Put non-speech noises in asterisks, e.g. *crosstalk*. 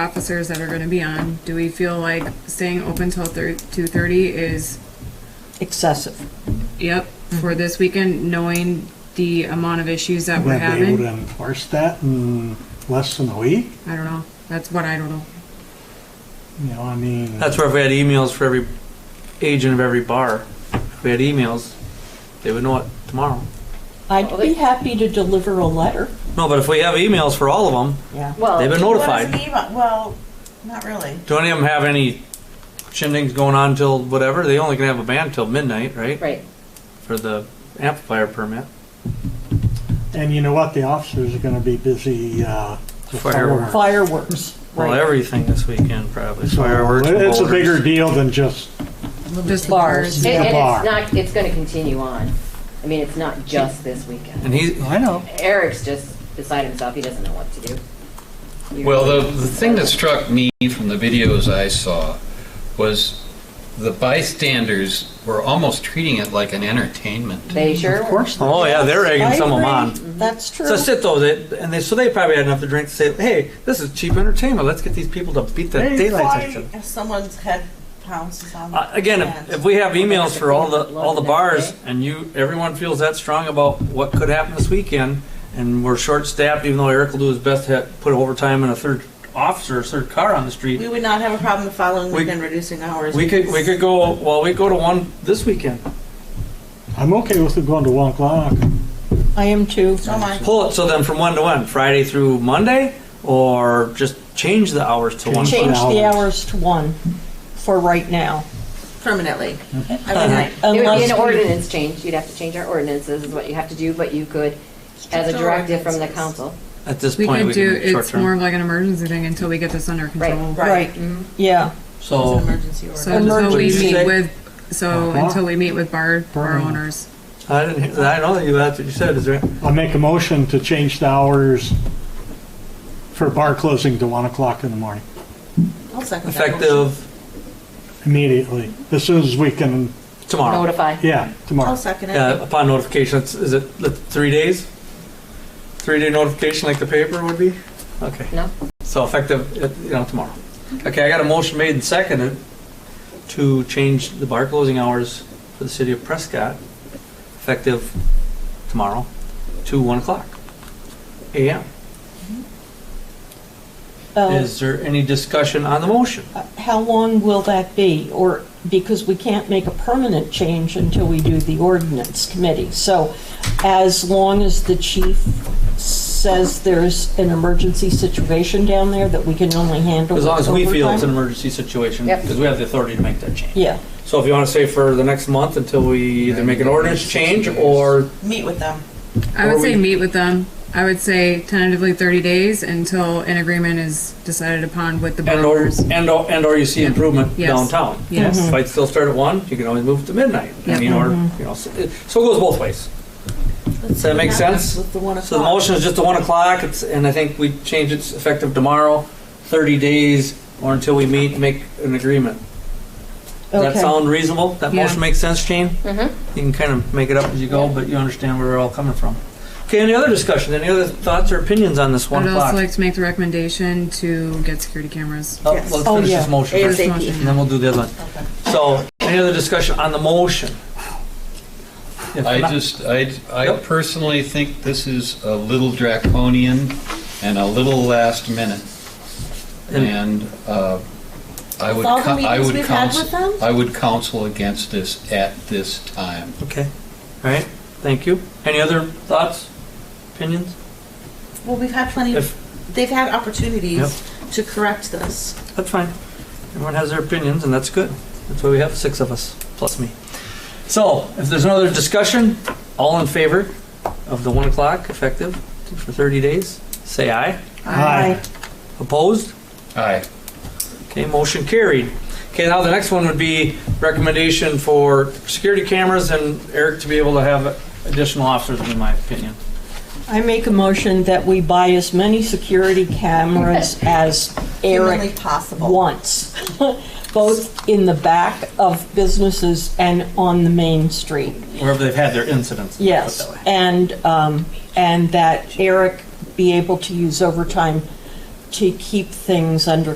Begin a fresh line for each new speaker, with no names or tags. officers that are gonna be on, do we feel like staying open till thir- two thirty is,
excessive.
yep,
Mm-hmm.
for this weekend, knowing the amount of issues that we're
We're gonna be able to
having?
enforce that in less than a week,
I don't know, that's what I don't know.
you know, I mean,
That's where if we had emails for every agent of every bar, if we had emails, they would know it tomorrow.
I'd be happy to deliver a letter.
No, but if we have emails for all of them,
Yeah.
Well,
They've been
what is
notified.
an email? Well, not really.
do any of them have any shindigs going on till whatever? They only can have a band till midnight, right?
Right.
For the amplifier permit.
and you know what, the officers are gonna be busy, uh, with fireworks.
Fireworks.
Fireworks.
Well,
right.
everything this weekend probably.
So
Fireworks.
It's a
motors.
bigger deal than just,
Just
Bars.
And,
Yeah,
and
bar.
it's not, it's gonna continue on. I mean, it's not just this weekend.
And he,
I know,
Eric's just beside himself, he doesn't know what to do. You're-
Well, the, the thing that struck me from the videos I saw was the bystanders were almost treating it like an entertainment.
They sure.
of course.
oh yeah, they're egging
I
some of them
agree.
on.
That's true.
So sit though, they, and they, so they probably had enough to drink to say, hey, this is cheap entertainment. Let's get these people to beat the
Hey,
daylights out of each other.
Why if someone's head pounces on
Uh, Again, if- if we have emails for all the, all the bars and you, everyone feels that strong about what could happen this weekend and we're short-staffed, even though Eric will do his best to ha- put overtime and a third officer, a third car on the
we
street,
would not have a problem the following
We-
weekend reducing hours.
we could, we could go, well, we go to one this weekend.
I'm okay with it going to one o'clock.
I am too.
So am I.
Pull it, so then from one to one, Friday through Monday, or just change the hours to one.
Change.
Change the
Hours.
hours to one for right now.
permanently.
Uh,
I mean,
It would be
Unless
an
we-
ordinance change, you'd have to change our ordinances, is what you have to do, but you could, as a
Strict
directive from the
ordinances.
council.
At this
We
point,
could
we
do,
can do
it's
short-term.
more of like an emergency thing until we get this under control.
Right,
Mhm.
yeah.
It's an
So,
emergency order.
So until we
Emergency.
meet with, so
Uh-huh.
until we meet with bar, bar
Burn.
owners.
I didn't, hear- I don't think that's what you said, is there?
I make a motion to change the hours for bar closing to one o'clock in the morning,
I'll second that motion.
Effective
immediately, as soon as we can,
tomorrow.
Notify.
yeah,
I'll
tomorrow.
second it.
Yeah, Uh, upon notification, it's- is it the three days? Three-day notification like the paper would be? Okay,
No?
so effective, uh, you know, tomorrow. Okay, I got a motion made and seconded to change the bar closing hours for the city of Prescott, effective tomorrow, to 1 o'clock AM.
Oh.
Uh,
Is there any discussion on the motion?
How long will that be? Or, because we can't make a permanent change until we do the ordinance committee. So as long as the chief says there's an emergency situation down there that we can only handle
As long as we feel it's
overtime?
an emergency situation,
Yep.
because we have the authority to make that change.
Yeah,
So if you want to say for the next month until we either make an ordinance change or
Meet with them.
I
Or
would say
we-
meet with them. I would say tentatively thirty days until an agreement is decided upon with the bar
And or,
owners.
and or, and or you see improvement
Yes.
downtown.
Yes. Mhm.
Fights still start at one, you can always move to midnight. I
Yep.
mean, or, you know, so it so it goes both ways.
Does
that make sense?
With the one
So the
o'clock.
motion is just to one o'clock, it's, and I think we change it effective tomorrow, thirty days, or until we meet, and make an agreement. Does that
Okay.
sound reasonable? That
Yeah.
motion makes sense, Jane?
Mhm.
You can kind of make it up as you go, but you understand where we're all coming from. Okay, any other discussion, any other thoughts or opinions on this one
I'd
o'clock?
also like to make the recommendation to get security cameras.
Oh,
Yes.
Let's
Oh,
finish this
yeah.
motion first.
First
ASAP.
motion.
And then we'll do the other one.
Okay.
So, any other discussion on the motion? If
I
not-
just, I, I
Yep.
personally think this is a little draconian and a little last minute.
And-
And uh, I would,
With all the
co- I
meetings
would
we've had with
counsel,
them?
I would counsel against this at this time.
Okay, all right, thank you. Any other thoughts, opinions?
Well, we've had plenty
If,
of, they've had opportunities to correct this.
that's fine. Everyone has their opinions, and that's good. That's why we have six of us, plus me. So, if there's no other discussion, all in favor of the 1 o'clock effective for 30 days, say aye.
Aye.
Opposed?
Aye.
Okay, motion carried. Okay, now the next one would be recommendation for security cameras and Eric to be able to have additional officers, in my opinion.
I make a motion that we buy as many security
*laughs*
cameras as
Humanly
Eric
possible.
wants, *laughs* both in the back of businesses and on the main street.
Wherever they've had their incidents.
Yes, and, um, and that Eric be able to use overtime to keep things under